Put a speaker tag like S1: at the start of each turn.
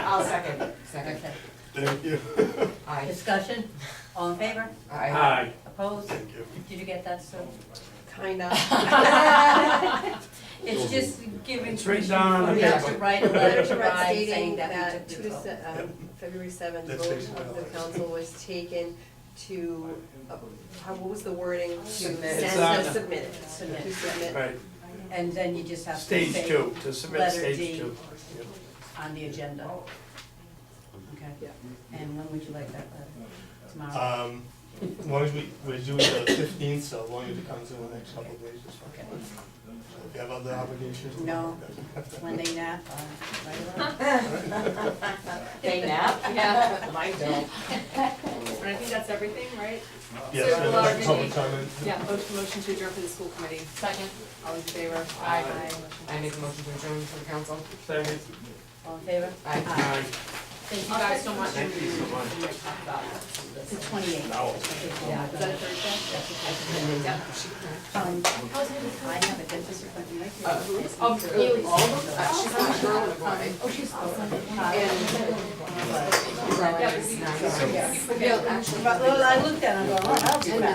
S1: I'll second, second.
S2: Okay.
S3: Thank you.
S1: Aye.
S2: Discussion, all in favor?
S1: Aye.
S4: Aye.
S2: Opposed?
S3: Thank you.
S2: Did you get that, Sue?
S5: Kinda.
S2: It's just giving.
S4: It's written down on the
S2: permission for us To
S4: paper.
S2: write a letter to
S5: Director
S2: Ryan
S5: stating
S2: saying that
S5: that
S2: we took the
S5: two,
S2: vote.
S5: se- um, February seventh,
S3: That's
S5: vote
S3: basically
S5: of the
S3: all.
S5: council was taken to, uh, how, what was the wording? To
S1: Submit.
S4: Submit.
S5: send- no, Submit, it.
S2: Submit.
S5: to submit.
S4: Right,
S2: And then you just have to
S4: stage
S2: say
S4: two, to submit
S2: letter
S4: stage
S2: D.
S4: two. Yep.
S2: on the agenda. Okay,
S5: Yeah.
S2: and when would you like that letter? Tomorrow?
S4: Uh,
S3: Um, as long as we, we're due the fifteenth, so as long as it comes in the next couple of days, it's fine.
S2: Okay.
S3: So If you have other obligations.
S2: No. When they nap, uh, write a letter?
S1: They nap? Yeah. Mine don't.
S5: I think that's everything, right?
S3: Yes,
S5: So,
S3: and
S5: well,
S3: like public
S5: maybe-
S3: comment.
S5: Yeah, motion to adjourn for the school committee,
S1: Second.
S5: all in favor?
S1: Aye. I make a motion to adjourn to the council.
S4: Second,
S2: All in favor?
S1: Aye.
S4: aye.
S2: Thank you
S5: I'll
S2: guys so
S5: second.
S2: much.
S4: Thank you so much.
S2: It's the twenty-eighth.
S5: Yeah, is that a Thursday? Yeah.
S2: Um, I have a dentist appointment right here.
S5: Of you, all of them, Uh, she's not a girl and a boy.
S2: Oh, she's awesome.
S5: Yeah, we-
S1: Nine.
S5: Yeah, actually.
S2: Well, I looked at it, I'm going, oh, I'll do that.